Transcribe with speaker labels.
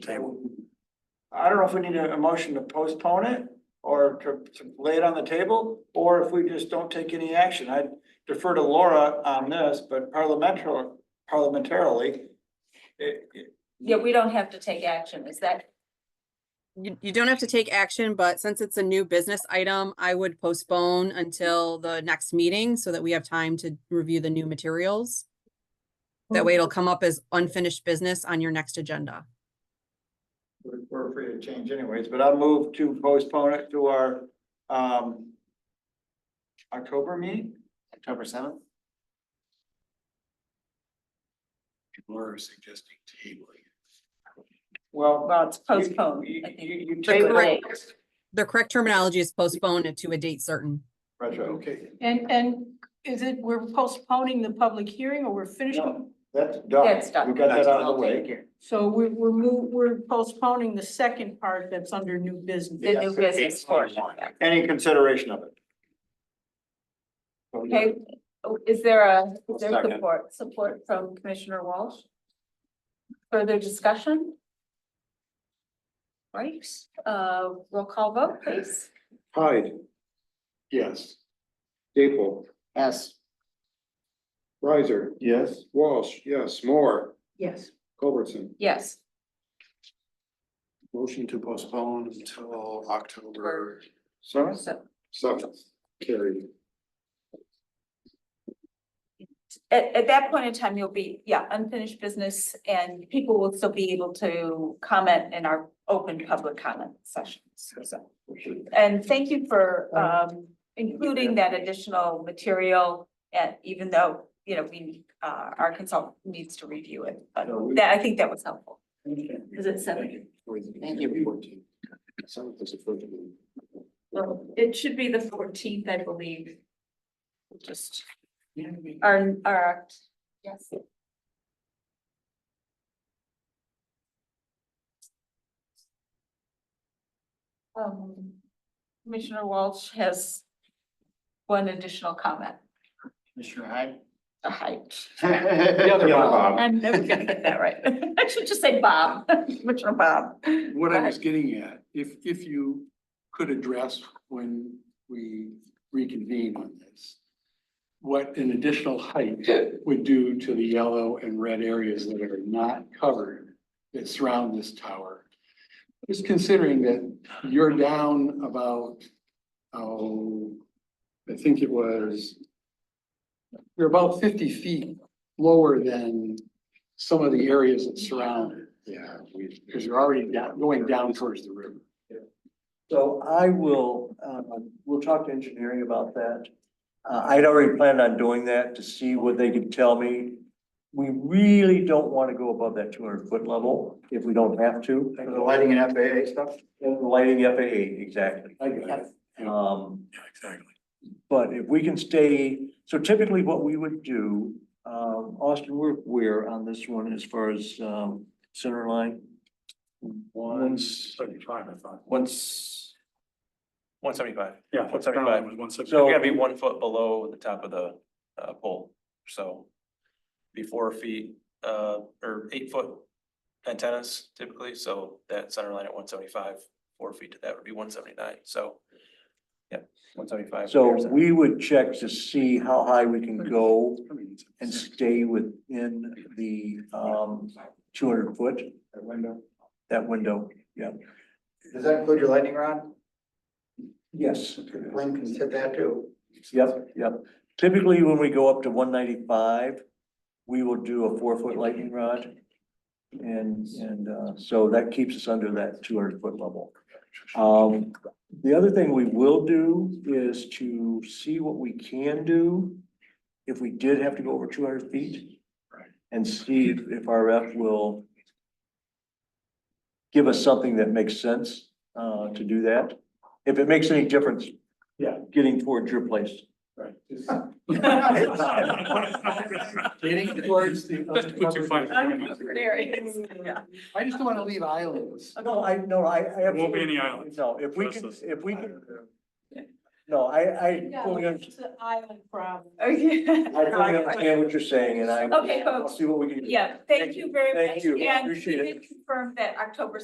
Speaker 1: say, I don't know if we need a, a motion to postpone it or to, to lay it on the table, or if we just don't take any action. I defer to Laura on this, but parliamentary, parliamentarily, it, it-
Speaker 2: Yeah, we don't have to take action, is that,
Speaker 3: You, you don't have to take action, but since it's a new business item, I would postpone until the next meeting so that we have time to review the new materials. That way it'll come up as unfinished business on your next agenda.
Speaker 1: we're- we're free to change anyways, but I'll move to postpone it to our, um, October meeting, October seventh.
Speaker 4: People are suggesting tabling.
Speaker 1: Well, that's.
Speaker 2: Postpone,
Speaker 1: You,
Speaker 2: I
Speaker 1: you-
Speaker 2: think.
Speaker 1: you you
Speaker 3: The
Speaker 1: table it.
Speaker 3: correct, the correct terminology is postpone it to a date certain.
Speaker 1: Retro.
Speaker 4: Okay,
Speaker 5: And, and is it, we're postponing the public hearing or we're finishing?
Speaker 1: No, That's done.
Speaker 2: That's done.
Speaker 1: We got that out of the
Speaker 2: I'll take
Speaker 1: way.
Speaker 5: So we're, we're move, we're postponing the second part that's under new
Speaker 2: the
Speaker 5: business.
Speaker 2: new business portion? of it.
Speaker 1: Any consideration of it?
Speaker 2: Okay, oh, is there a, is there
Speaker 1: Second.
Speaker 2: support, support from Commissioner Walsh? Further discussion? Right, uh, roll call vote, please.
Speaker 6: Hyde,
Speaker 4: yes.
Speaker 6: Staple,
Speaker 1: Yes.
Speaker 6: Riser,
Speaker 4: Yes.
Speaker 6: Walsh, yes, Moore,
Speaker 5: Yes.
Speaker 6: Culbertson.
Speaker 2: Yes,
Speaker 4: Motion to postpone until October.
Speaker 6: Seven.
Speaker 2: so,
Speaker 6: Seven, carried.
Speaker 2: at, at that point in time, you'll be, yeah, unfinished business and people will still be able to comment in our open public comment sessions, so. And thank you for um including that additional material. And even though, you know, we, uh, our consultant needs to review it, but that, I think that was helpful. Is it seven?
Speaker 4: Thank you. Fourteen. Seven is the first one.
Speaker 2: It should be the fourteenth, I believe. Just. Our, our. Yes. Um, Commissioner Walsh has one additional comment.
Speaker 1: Mr. Hyde?
Speaker 2: a height.
Speaker 1: The other Bob.
Speaker 2: I'm never gonna get that right. I should just say Bob, Commissioner Bob.
Speaker 4: What I
Speaker 2: But
Speaker 4: was getting at, if, if you could address when we reconvene on this, what an additional height would do to the yellow and red areas that are not covered that surround this tower. Just considering that you're down about, oh, I think it was, you're about fifty feet lower than some of the areas that surround it.
Speaker 6: Yeah, we,
Speaker 4: Because you're already down, going down towards the river.
Speaker 7: So I will, um, we'll talk to engineering about that. Uh, I'd already planned on doing that to see what they could tell me. We really don't want to go above that two hundred foot level if we don't have to.
Speaker 1: The lighting and FAA stuff?
Speaker 7: And the Lighting FAA, exactly.
Speaker 4: I got it.
Speaker 7: Um,
Speaker 4: Yeah, exactly.
Speaker 7: but if we can stay, so typically what we would do, um, Austin, we're, we're on this one as far as, um, center line.
Speaker 4: One seventy-five, I thought.
Speaker 8: Once. One seventy-five,
Speaker 4: Yeah.
Speaker 8: One seventy-five.
Speaker 4: was one
Speaker 8: so you
Speaker 4: seventy-five.
Speaker 8: gotta be one foot below the top of the uh pole, so. Be four feet uh or eight foot antennas typically, so that center line at one seventy-five, four feet to that would be one seventy-nine, so. Yeah, one seventy-five.
Speaker 7: So we would check to see how high we can go and stay within the um two hundred foot,
Speaker 1: That window?
Speaker 7: that window, yeah.
Speaker 1: Does that include your lightning rod?
Speaker 7: Yes.
Speaker 1: Lynn can hit that too.
Speaker 7: Yep, yep. Typically, when we go up to one ninety-five, we will do a four-foot lightning rod. And, and, uh, so that keeps us under that two hundred foot level. Um, the other thing we will do is to see what we can do if we did have to go over two hundred feet.
Speaker 4: Right.
Speaker 7: And see if- if RF will give us something that makes sense, uh, to do that. If it makes any difference.
Speaker 4: Yeah.
Speaker 7: Getting towards your place.
Speaker 4: Getting towards the.
Speaker 8: Just put your finger
Speaker 4: I just don't want to leave islands.
Speaker 7: No, I, no, I, I.
Speaker 4: There won't be
Speaker 7: absolutely-
Speaker 4: any islands.
Speaker 7: No, if we
Speaker 4: Trust
Speaker 7: can,
Speaker 4: us.
Speaker 7: if we can, No, I, I fully
Speaker 5: Yeah,
Speaker 7: understand.
Speaker 5: it's an island problem.
Speaker 7: I fully understand what you're saying and I.
Speaker 2: Okay, folks.
Speaker 7: I'll See what we can do.
Speaker 2: Yeah, thank you very much.
Speaker 7: Thank you.
Speaker 2: And
Speaker 7: Appreciate
Speaker 2: we
Speaker 7: it.
Speaker 2: did Confirm that October